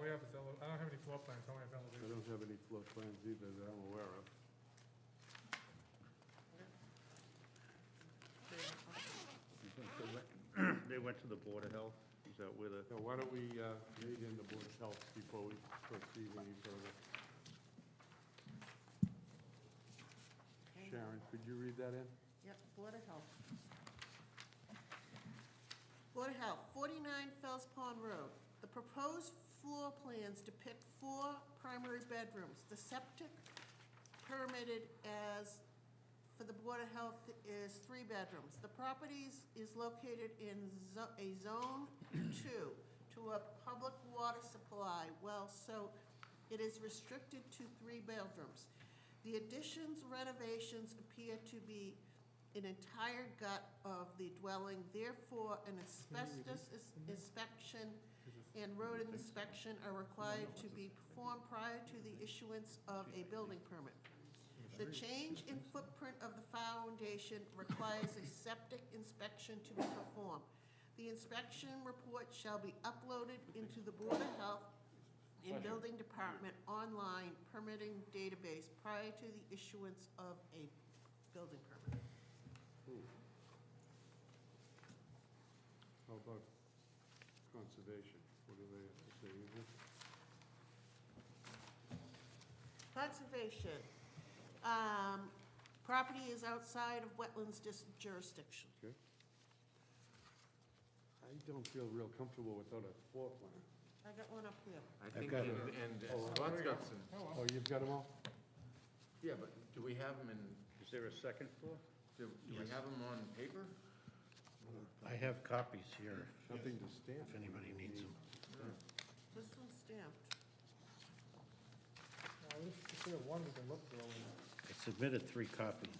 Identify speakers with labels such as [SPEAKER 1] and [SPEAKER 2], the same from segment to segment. [SPEAKER 1] we have is, ele- I don't have any floor plans, I only have
[SPEAKER 2] I
[SPEAKER 1] elevations.
[SPEAKER 2] don't have any floor plans either that I'm aware of.
[SPEAKER 3] They went to the Board of Health, is that where the,
[SPEAKER 2] Now, why don't we uh, read in the Board of Health before we proceed any further? Sharon, could you read that in?
[SPEAKER 4] Yep, Board of Health. Board of Health, 49 Fells Pond Road. The proposed floor plans depict four primary bedrooms. The septic permitted as, for the Board of Health, is three bedrooms. The properties is located in zo- a Zone 2 to a public water supply well, so it is restricted to three bedrooms. The additions renovations appear to be an entire gut of the dwelling, therefore an asbestos is- inspection and road inspection are required to be performed prior to the issuance of a building permit. The change in footprint of the foundation requires a septic inspection to be performed. The inspection report shall be uploaded into the Board of Health and Building Department online permitting database prior to the issuance of a building permit.
[SPEAKER 2] How about conservation? What do they have to say? Is it-
[SPEAKER 4] Conservation. Um, Property is outside of wetlands dis- jurisdiction.
[SPEAKER 2] Okay. I don't feel real comfortable without a floor plan.
[SPEAKER 4] I got one up here.
[SPEAKER 5] I think,
[SPEAKER 2] got
[SPEAKER 5] and,
[SPEAKER 2] it.
[SPEAKER 5] and Scott's got some,
[SPEAKER 2] Oh, you've got them all?
[SPEAKER 5] yeah, but do we have them in,
[SPEAKER 3] is there a second floor?
[SPEAKER 5] do do we have them on paper?
[SPEAKER 6] I have copies here,
[SPEAKER 2] Nothing to stamp.
[SPEAKER 6] if anybody needs them.
[SPEAKER 4] This one's stamped.
[SPEAKER 1] At least if we have one, we can look through. and-
[SPEAKER 6] I submitted three copies.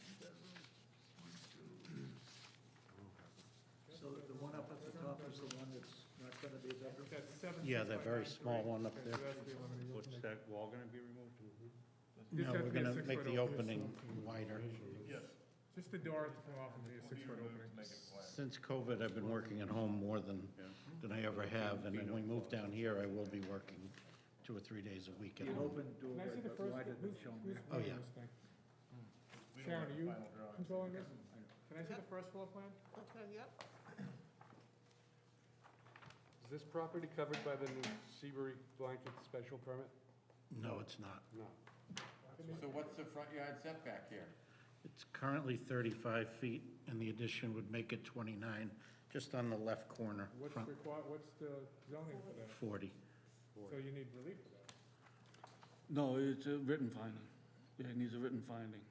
[SPEAKER 7] So the one up at the top is the one that's not gonna be a bedroom?
[SPEAKER 1] That's seven.
[SPEAKER 6] Yeah, that very small one up there.
[SPEAKER 3] What's that wall gonna be removed?
[SPEAKER 6] No,
[SPEAKER 1] has to
[SPEAKER 6] we're
[SPEAKER 1] be a
[SPEAKER 6] gonna make the
[SPEAKER 1] six-foot opening.
[SPEAKER 6] opening wider.
[SPEAKER 1] Just the door has to come off and be a six-foot opening.
[SPEAKER 6] Since COVID, I've been working at home more than, than I ever have, and when we move down here, I will be working two or three days a week at
[SPEAKER 7] An
[SPEAKER 6] home.
[SPEAKER 7] open
[SPEAKER 1] Can I
[SPEAKER 7] doorway,
[SPEAKER 1] see the
[SPEAKER 7] but
[SPEAKER 1] first,
[SPEAKER 7] why didn't
[SPEAKER 1] who's,
[SPEAKER 7] it show me?
[SPEAKER 1] who's
[SPEAKER 6] Oh,
[SPEAKER 1] running
[SPEAKER 6] yeah.
[SPEAKER 1] this thing? Sharon, are you controlling this? Can I see the first floor plan?
[SPEAKER 4] Okay, yep.
[SPEAKER 2] Is this property covered by the new Seabury blanket special permit?
[SPEAKER 6] No, it's not.
[SPEAKER 2] No.
[SPEAKER 5] So what's the front yard setback here?
[SPEAKER 6] It's currently 35 feet, and the addition would make it 29, just on the left corner,
[SPEAKER 1] What's
[SPEAKER 6] front
[SPEAKER 1] required, what's the zoning for that?
[SPEAKER 6] 40.
[SPEAKER 1] So you need relief for that.
[SPEAKER 8] No, it's a written finding. Yeah, it needs a written finding.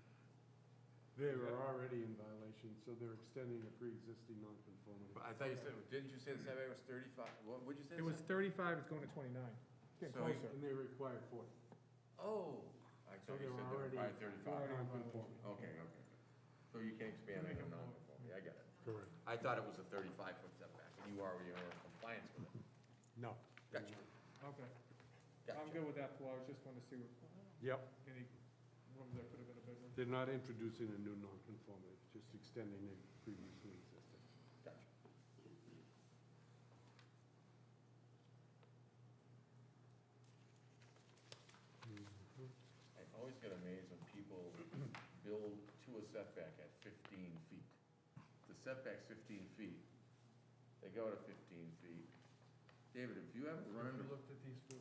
[SPEAKER 2] They were already in violation, so they're extending a pre-existing
[SPEAKER 5] But
[SPEAKER 2] nonconformity.
[SPEAKER 5] I thought you said, didn't you say the setback was thirty-five, what, what'd you say?
[SPEAKER 1] It was thirty-five, it's going to twenty-nine. Getting
[SPEAKER 5] So-
[SPEAKER 1] closer.
[SPEAKER 2] And they require forty.
[SPEAKER 5] Oh, I
[SPEAKER 2] So
[SPEAKER 5] thought
[SPEAKER 2] they're
[SPEAKER 5] you said they were by
[SPEAKER 2] already
[SPEAKER 5] thirty-five.
[SPEAKER 2] nonconforming.
[SPEAKER 5] Okay, okay. So you can expand, make them non-conforming, I get it.
[SPEAKER 2] Correct.
[SPEAKER 5] I thought it was a thirty-five foot setback, and you already were in compliance with it.
[SPEAKER 2] No.
[SPEAKER 5] Gotcha,
[SPEAKER 1] Okay. I'm
[SPEAKER 5] gotcha.
[SPEAKER 1] good with that floor, I was just wanted to see what,
[SPEAKER 2] Yep,
[SPEAKER 1] any room there could have been a bedroom.
[SPEAKER 2] they're not introducing a new nonconformity, just extending a previously existing.
[SPEAKER 5] Gotcha. I always get amazed when people build to a setback at fifteen feet. The setback's fifteen feet, they go to fifteen feet. David, have you ever run into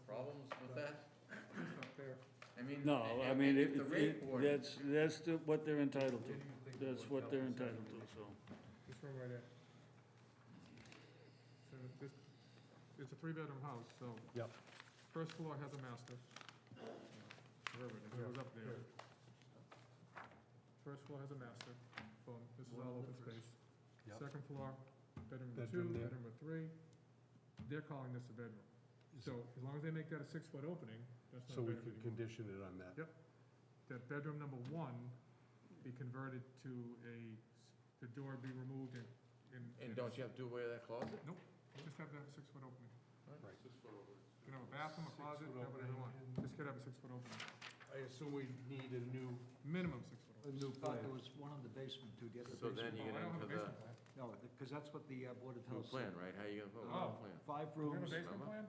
[SPEAKER 5] problems with that?
[SPEAKER 1] It's not there.
[SPEAKER 5] I mean.
[SPEAKER 8] No, I
[SPEAKER 5] and-
[SPEAKER 8] mean,
[SPEAKER 5] and
[SPEAKER 8] it,
[SPEAKER 5] if the rate
[SPEAKER 8] it,
[SPEAKER 5] board-
[SPEAKER 8] that's, that's the- what they're entitled to. That's what they're entitled to, so.
[SPEAKER 1] This room right there. So this, it's a three-bedroom house, so
[SPEAKER 2] Yep.
[SPEAKER 1] first floor has a master. Wherever it is, it was up there. First floor has a master, boom, this is all open space.
[SPEAKER 2] Yep.
[SPEAKER 1] Second floor, bedroom number two,
[SPEAKER 2] Bedroom there.
[SPEAKER 1] bedroom number three, they're calling this a bedroom. So as long as they make that a six-foot opening, that's not
[SPEAKER 2] So
[SPEAKER 1] a
[SPEAKER 2] we
[SPEAKER 1] bedroom
[SPEAKER 2] could
[SPEAKER 1] anymore.
[SPEAKER 2] condition it on that.
[SPEAKER 1] Yep. That bedroom number one be converted to a, s- the door be removed and.
[SPEAKER 5] And don't you have to do away with that closet?
[SPEAKER 1] Nope, you just have to have a six-foot opening.
[SPEAKER 2] Right.
[SPEAKER 1] You can have a bathroom, a closet,
[SPEAKER 2] Six-foot
[SPEAKER 1] whatever you
[SPEAKER 2] opening.
[SPEAKER 1] want. Just gotta have a six-foot opening,
[SPEAKER 2] I assume we need a new,
[SPEAKER 1] minimum six-foot
[SPEAKER 2] a
[SPEAKER 1] opening.
[SPEAKER 2] new
[SPEAKER 7] Thought there
[SPEAKER 2] plan.
[SPEAKER 7] was one in the basement to get the
[SPEAKER 5] So then
[SPEAKER 7] basement.
[SPEAKER 5] you get
[SPEAKER 1] Well, I don't have a
[SPEAKER 5] into
[SPEAKER 1] basement
[SPEAKER 5] the
[SPEAKER 1] plan.
[SPEAKER 7] No, because that's what the uh, Board of
[SPEAKER 5] new
[SPEAKER 7] Health said.
[SPEAKER 5] plan, right? How you gonna vote on
[SPEAKER 1] Oh.
[SPEAKER 5] the plan?
[SPEAKER 7] Five
[SPEAKER 1] You have a
[SPEAKER 7] rooms,
[SPEAKER 1] basement
[SPEAKER 5] Remember?
[SPEAKER 1] plan?